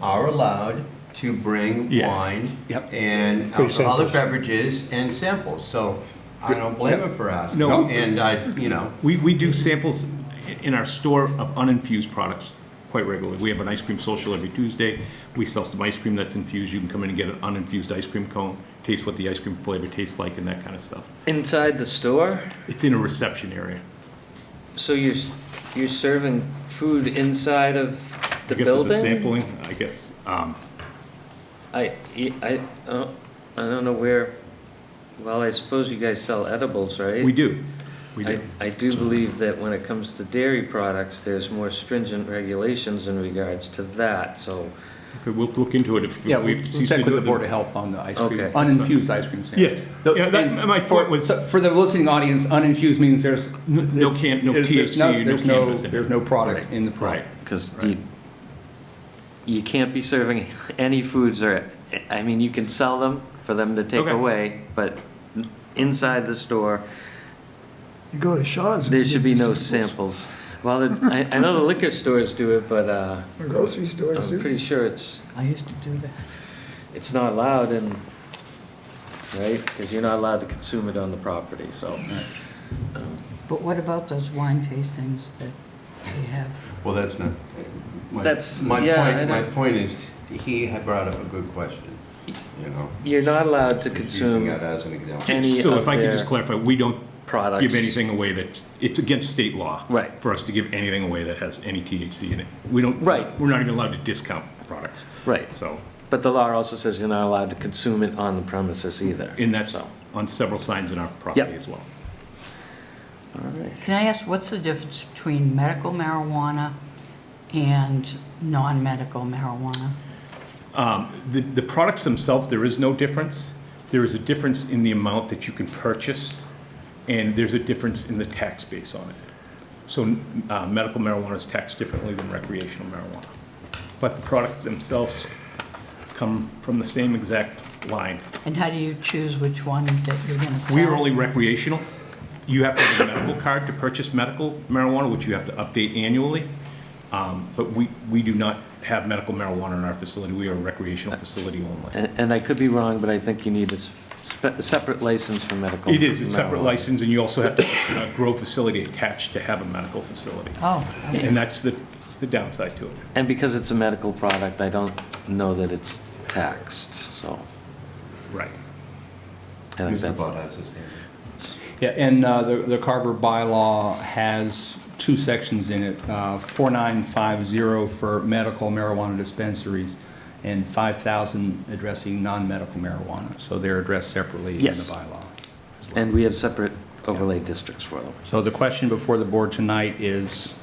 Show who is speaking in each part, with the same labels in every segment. Speaker 1: are allowed to bring
Speaker 2: Yeah.
Speaker 1: wine
Speaker 2: Yep.
Speaker 1: and
Speaker 3: Free
Speaker 1: alcoholic
Speaker 3: samples.
Speaker 1: beverages and samples, so I don't blame
Speaker 2: Yep.
Speaker 1: them for asking.
Speaker 2: No.
Speaker 1: And I, you know,
Speaker 2: We, we do samples i- in our store of uninfused products quite regularly. We have an ice cream social every Tuesday. We sell some ice cream that's infused. You can come in and get an uninfused ice cream cone, taste what the ice cream flavor tastes like and that kind of stuff.
Speaker 4: Inside the store?
Speaker 2: It's in a reception area.
Speaker 4: So you're, s- you're serving food inside of the
Speaker 2: I guess it's a
Speaker 4: building?
Speaker 2: sampling, I guess. Um,
Speaker 4: I, e, I, I don't- I don't know where, well, I suppose you guys sell edibles, right?
Speaker 2: we do. We
Speaker 4: I,
Speaker 2: do.
Speaker 4: I do believe that when it comes to dairy products, there's more stringent regulations in regards to that, so,
Speaker 2: Okay, We'll look into it if we
Speaker 5: Yeah,
Speaker 2: have
Speaker 5: we
Speaker 2: to
Speaker 5: we
Speaker 2: cease to
Speaker 5: check with
Speaker 2: do
Speaker 5: the
Speaker 2: it.
Speaker 5: Board of Health on the ice cream,
Speaker 4: Okay.
Speaker 5: uninfused ice cream sandwich.
Speaker 2: Yes. Yeah, that- my point was-
Speaker 5: For the listening audience, uninfused means there's.
Speaker 2: no
Speaker 5: there's-
Speaker 2: can- no
Speaker 5: there's- there's
Speaker 2: THC, no
Speaker 5: there's
Speaker 2: cannabis in it.
Speaker 5: There's no product in the
Speaker 2: Right.
Speaker 5: product.
Speaker 4: because you, you can't be serving any foods or, I mean, you can sell them for them to take
Speaker 2: Okay.
Speaker 4: away, but inside the store,
Speaker 3: You go to Shaw's. and
Speaker 4: There
Speaker 3: you
Speaker 4: should be
Speaker 3: get
Speaker 4: no
Speaker 3: samples.
Speaker 4: samples. Well, the- I, I know the liquor stores do it, but, uh,
Speaker 3: Grocery stores
Speaker 4: I'm
Speaker 3: do.
Speaker 4: pretty sure it's,
Speaker 5: I used to do that.
Speaker 4: it's not allowed and, right? Because you're not allowed to consume it on the property, so.
Speaker 6: But what about those wine tastings that we have?
Speaker 1: well, that's not. my-
Speaker 4: That's-
Speaker 1: My
Speaker 4: yeah, I
Speaker 1: point, my
Speaker 4: don't-
Speaker 1: point is, he had brought up a good question, you know?
Speaker 4: You're not allowed to
Speaker 1: he's Using that
Speaker 4: consume
Speaker 1: as an example.
Speaker 4: any
Speaker 2: So
Speaker 4: of
Speaker 2: if I could
Speaker 4: their
Speaker 2: just clarify, we don't
Speaker 4: products.
Speaker 2: give anything away that's, it's against state law.
Speaker 4: Right.
Speaker 2: For us to give anything away that has any THC in it. We don't.
Speaker 4: Right.
Speaker 2: We're not even allowed to discount products.
Speaker 4: Right,
Speaker 2: So,
Speaker 4: but the law also says you're not allowed to consume it on the premises either.
Speaker 2: and that's
Speaker 4: So,
Speaker 2: on several signs in our property
Speaker 4: Yep.
Speaker 2: as well.
Speaker 4: All right.
Speaker 6: Can I ask, what's the difference between medical marijuana and non-medical marijuana?
Speaker 2: Um, The, the products themselves, there is no difference. There is a difference in the amount that you can purchase, and there's a difference in the tax base on it. So uh, medical marijuana is taxed differently than recreational marijuana. But the products themselves come from the same exact line.
Speaker 6: And how do you choose which one that you're going to sell?
Speaker 2: We are only recreational. You have to have a medical card to purchase medical marijuana, which you have to update annually. Um, But we, we do not have medical marijuana in our facility. We are a recreational facility only.
Speaker 4: And, and I could be wrong, but I think you need a s- spe- separate license for medical.
Speaker 2: It is, it's separate
Speaker 4: marijuana.
Speaker 2: license, and you also have to uh, grow facility attached to have a medical facility.
Speaker 6: Oh, okay.
Speaker 2: And that's the, the downside to it.
Speaker 4: And because it's a medical product, I don't know that it's taxed, so
Speaker 2: Right.
Speaker 4: I think
Speaker 1: Mr.
Speaker 4: that's.
Speaker 1: Bott has his hand.
Speaker 5: Yeah, and uh, the the Carver bylaw has two sections in it, uh, 4950 for medical marijuana dispensaries and 5,000 addressing non-medical marijuana. So they're addressed separately in the
Speaker 4: Yes.
Speaker 5: bylaw. as well.
Speaker 4: And we have separate overlay districts for them.
Speaker 5: So the question before the board tonight is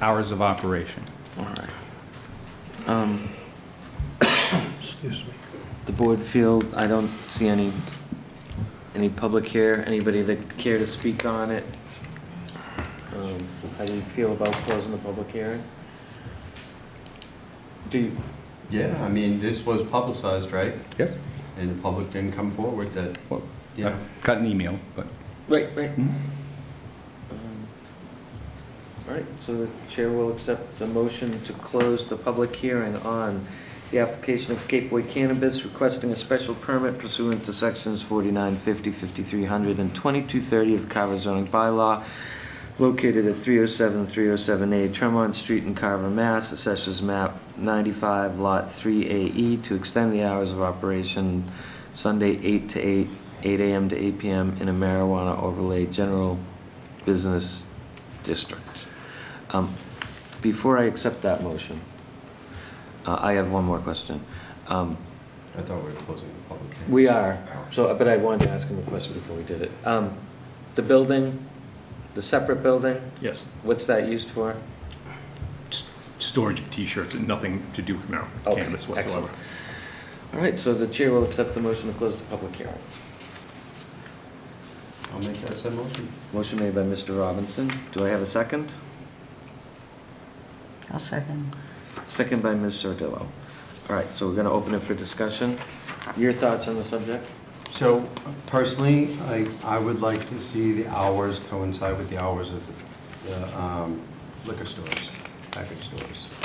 Speaker 5: hours of operation.
Speaker 4: All right. Um,
Speaker 3: Excuse me.
Speaker 4: The board feel, I don't see any, any public here, anybody that care to speak on it. Um, How do you feel about closing the public hearing? Do you,
Speaker 1: Yeah, I mean, this was publicized, right?
Speaker 5: Yes.
Speaker 1: And the public didn't come forward that,
Speaker 5: Well,
Speaker 1: you know.
Speaker 5: Got an email, but
Speaker 4: right, right. Um, All right, so the chair will accept a motion to close the public hearing on the application of Gateway Cannabis requesting a special permit pursuant to sections 4950, 5300, and 2230 of the Carver zoning bylaw located at 307, 307A Tremont Street in Carver, Mass. Assessors map 95, Lot 3AE, to extend the hours of operation Sunday 8 to 8, 8 AM to 8 PM in a marijuana overlay general business district. Um, Before I accept that motion, uh, I have one more question. Um,
Speaker 1: I thought we were closing the public hearing.
Speaker 4: We are, so, but I wanted to ask him a question before we did it. Um, The building, the separate building,
Speaker 2: Yes.
Speaker 4: what's that used for?
Speaker 2: S- Storage of T-shirts and nothing to do with marijuana,
Speaker 4: Okay,
Speaker 2: cannabis whatsoever.
Speaker 4: excellent. All right, so the chair will accept the motion to close the public hearing.
Speaker 1: I'll make that said motion.
Speaker 4: Motion made by Mr. Robinson. Do I have a second?
Speaker 6: I'll second.
Speaker 4: Second by Ms. Sardillo. All right, so we're going to open it for discussion. Your thoughts on the subject?
Speaker 1: So personally, I, I would like to see the hours coincide with the hours of the um, liquor stores, package stores.